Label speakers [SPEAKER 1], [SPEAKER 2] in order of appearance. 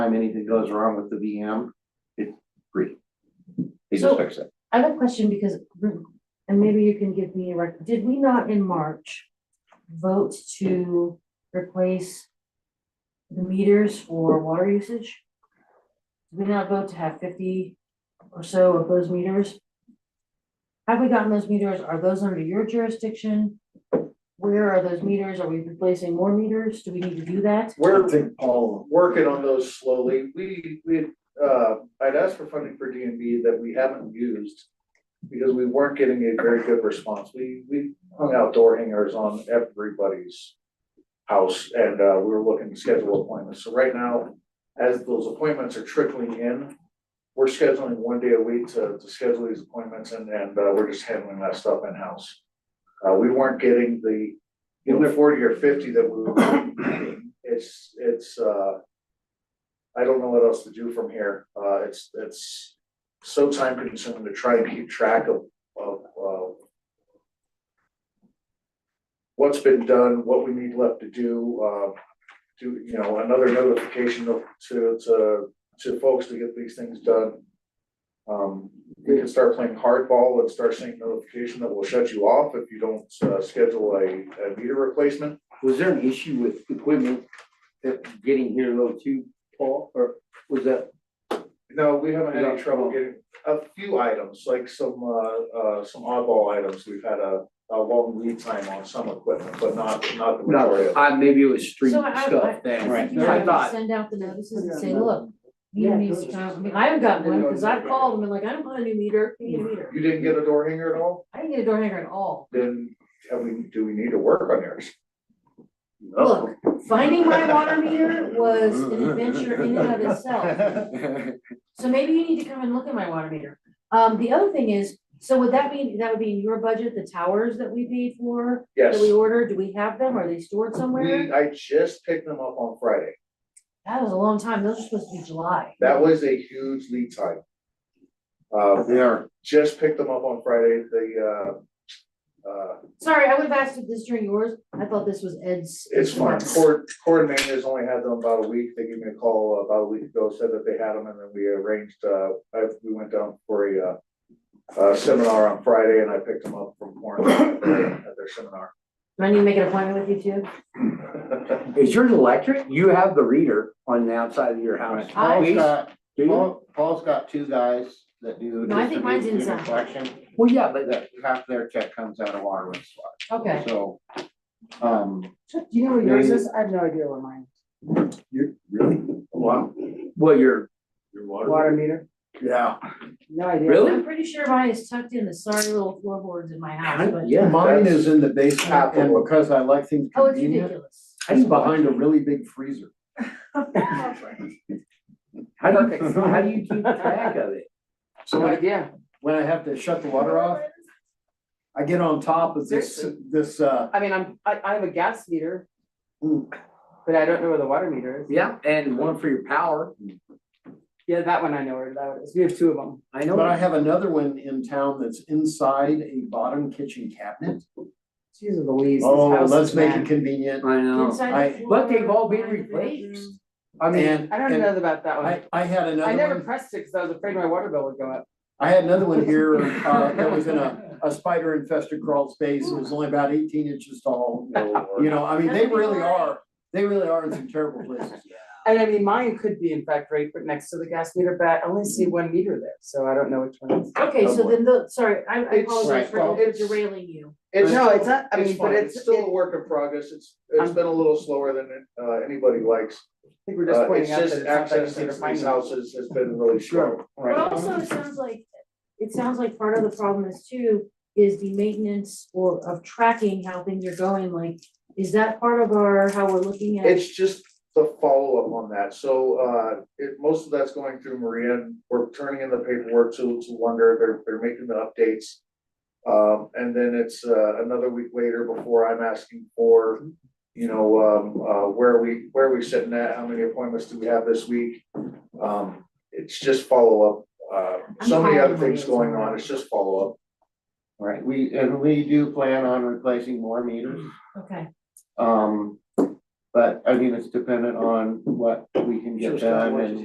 [SPEAKER 1] time anything goes wrong with the VM, it's free. They just
[SPEAKER 2] So-
[SPEAKER 1] fix it.
[SPEAKER 2] I have a question because, and maybe you can give me a rec, did we not in March vote to replace the meters for water usage? Did we not vote to have fifty or so of those meters? Have we gotten those meters? Are those under your jurisdiction? Where are those meters? Are we replacing more meters? Do we need to do that?
[SPEAKER 3] We're working on those slowly. We, we, uh, I'd asked for funding for D and B that we haven't used because we weren't getting a very good response. We, we hung out door hangers on everybody's house and, uh, we were looking to schedule appointments. So right now, as those appointments are trickling in, we're scheduling one day a week to, to schedule these appointments and, and, uh, we're just handling that stuff in-house. Uh, we weren't getting the, you know, forty or fifty that we were it's, it's, uh, I don't know what else to do from here. Uh, it's, it's so time consuming to try and keep track of, of, uh, what's been done, what we need left to do, uh, do, you know, another notification of, to, to, to folks to get these things done. Um, we can start playing hardball and start sending notification that will shut you off if you don't, uh, schedule a, a meter replacement.
[SPEAKER 1] Was there an issue with equipment that getting here though too, Paul, or was that?
[SPEAKER 3] No, we haven't had any
[SPEAKER 1] Yeah.
[SPEAKER 3] trouble getting, a few items, like some, uh, uh, some oddball items, we've had a, a long lead time on some equipment, but not, not the majority of. it.
[SPEAKER 1] I, maybe it was street
[SPEAKER 2] So I- I-
[SPEAKER 1] stuff then.
[SPEAKER 2] I think
[SPEAKER 1] I
[SPEAKER 2] you have to
[SPEAKER 1] thought,
[SPEAKER 2] send out the notices and say, look, you need to, I mean, I haven't gotten one, cause I've called them and like, I don't want a new meter, I need a meter.
[SPEAKER 3] You didn't get a door hanger at all,
[SPEAKER 2] I didn't get a door hanger at all.
[SPEAKER 3] then, have we, do we need to work on yours? Oh.
[SPEAKER 2] Look, finding my water meter was an adventure in and of itself. So maybe you need to come and look at my water meter. Um, the other thing is, so would that mean, that would be in your budget, the towers that we paid for?
[SPEAKER 3] Yes,
[SPEAKER 2] That we ordered, do we have them? Are they stored somewhere?
[SPEAKER 3] we, I just picked them up on Friday,
[SPEAKER 2] That was a long time. Those are supposed to be July.
[SPEAKER 3] that was a huge lead time. Uh,
[SPEAKER 1] They are,
[SPEAKER 3] just picked them up on Friday, the, uh, uh,
[SPEAKER 2] Sorry, I would have asked if this during yours. I thought this was Ed's.
[SPEAKER 3] It's fine, Cord, Cord Maine has only had them about a week, they gave me a call about a week ago, said that they had them, and then we arranged, uh, I, we went down for a, uh. Uh, seminar on Friday, and I picked them up from Warren at their at their seminar.
[SPEAKER 2] Do I need to make an appointment with you too?
[SPEAKER 4] Is yours electric? You have the reader on the outside of your house.
[SPEAKER 2] I-
[SPEAKER 1] Paul's
[SPEAKER 4] Please,
[SPEAKER 1] got,
[SPEAKER 4] do you?
[SPEAKER 1] Paul, Paul's got two guys that do.
[SPEAKER 2] No, I think mine's
[SPEAKER 1] distribution and
[SPEAKER 2] inside.
[SPEAKER 1] Collection,
[SPEAKER 4] Well, yeah, but
[SPEAKER 1] that half their check comes out of water and sewer.
[SPEAKER 2] Okay.
[SPEAKER 1] So, um.
[SPEAKER 5] Do you know where yours is? I have no idea where mine,
[SPEAKER 1] You're really? Wow.
[SPEAKER 4] well, your
[SPEAKER 1] Your
[SPEAKER 5] is. water meter,
[SPEAKER 1] Yeah.
[SPEAKER 5] no idea.
[SPEAKER 4] Really?
[SPEAKER 2] I'm pretty sure mine is tucked in the sorry little floorboards in my house, but.
[SPEAKER 4] yeah,
[SPEAKER 1] Mine is in the basement and because I like things
[SPEAKER 2] Oh, it's
[SPEAKER 1] convenient,
[SPEAKER 2] ridiculous.
[SPEAKER 4] it's
[SPEAKER 1] it's behind
[SPEAKER 4] behind
[SPEAKER 1] a really big freezer.
[SPEAKER 4] how do you, how do you keep track of it?
[SPEAKER 1] So I- when I have to shut the water off, I get on top of this,
[SPEAKER 5] Seriously?
[SPEAKER 1] this, uh,
[SPEAKER 5] I mean, I'm, I, I have a gas meter,
[SPEAKER 1] mm,
[SPEAKER 5] but I don't know where the water meter is.
[SPEAKER 4] Yeah, and one for your power.
[SPEAKER 5] Yeah, that one I know where that is. We have two of them.
[SPEAKER 4] I know.
[SPEAKER 1] but I have another one in town that's inside a bottom kitchen cabinet.
[SPEAKER 5] Jeez Louise, this
[SPEAKER 1] Oh,
[SPEAKER 5] house is
[SPEAKER 1] let's make
[SPEAKER 5] mad.
[SPEAKER 1] it convenient.
[SPEAKER 4] I know.
[SPEAKER 2] Inside
[SPEAKER 1] I-
[SPEAKER 2] the floor.
[SPEAKER 4] But they've all been
[SPEAKER 2] behind the
[SPEAKER 4] replaced.
[SPEAKER 2] bedroom.
[SPEAKER 5] I mean,
[SPEAKER 1] and-
[SPEAKER 5] I don't
[SPEAKER 1] and
[SPEAKER 5] know about that one.
[SPEAKER 1] I, I had
[SPEAKER 5] I
[SPEAKER 1] another
[SPEAKER 5] never
[SPEAKER 1] one,
[SPEAKER 5] pressed it because I was afraid my water bill would go up.
[SPEAKER 1] I had another one here, uh, that was in a, a spider infested crawl space. It was only about eighteen inches tall. You know, I mean, they really are, they really are in some terrible places.
[SPEAKER 5] And I mean, mine could be in fact right next to the gas meter, but I only see one meter there, so I don't know which one it is.
[SPEAKER 2] Okay, so then the, sorry, I I
[SPEAKER 3] It's-
[SPEAKER 2] apologize for
[SPEAKER 3] well, it's-
[SPEAKER 2] derailing you.
[SPEAKER 3] It's,
[SPEAKER 5] No, it's not, I
[SPEAKER 3] it's
[SPEAKER 5] mean, but
[SPEAKER 3] fine,
[SPEAKER 5] it's,
[SPEAKER 3] it's
[SPEAKER 5] it-
[SPEAKER 3] still a work in progress, it's, it's
[SPEAKER 5] I'm-
[SPEAKER 3] been a little slower than, uh, anybody likes.
[SPEAKER 5] I think we're
[SPEAKER 3] Uh,
[SPEAKER 5] just
[SPEAKER 3] it's
[SPEAKER 5] pointing out that
[SPEAKER 3] just
[SPEAKER 5] it's not that
[SPEAKER 3] access
[SPEAKER 5] easy to
[SPEAKER 3] to
[SPEAKER 5] find
[SPEAKER 3] these
[SPEAKER 5] them.
[SPEAKER 3] houses has been really slow.
[SPEAKER 2] But also, it sounds like, it sounds like part of the problem is too, is the maintenance or of tracking how things are going, like, is that part of our, how we're looking at?
[SPEAKER 3] It's just the follow-up on that, so, uh, it, most of that's going through Maria, and we're turning in the paperwork to, to Wonder, they're, they're making the updates. Um, and then it's, uh, another week later before I'm asking for, you know, um, uh, where are we, where are we sitting at, how many appointments do we have this week? Um, it's just follow-up, uh, so many other things going on, it's just follow-up.
[SPEAKER 6] Right, we, and we do plan on replacing more meters.
[SPEAKER 2] Okay,
[SPEAKER 6] Um,
[SPEAKER 3] But I mean, it's dependent on what we can
[SPEAKER 6] Sure,
[SPEAKER 3] get
[SPEAKER 6] Scott,
[SPEAKER 3] done
[SPEAKER 6] why don't
[SPEAKER 3] and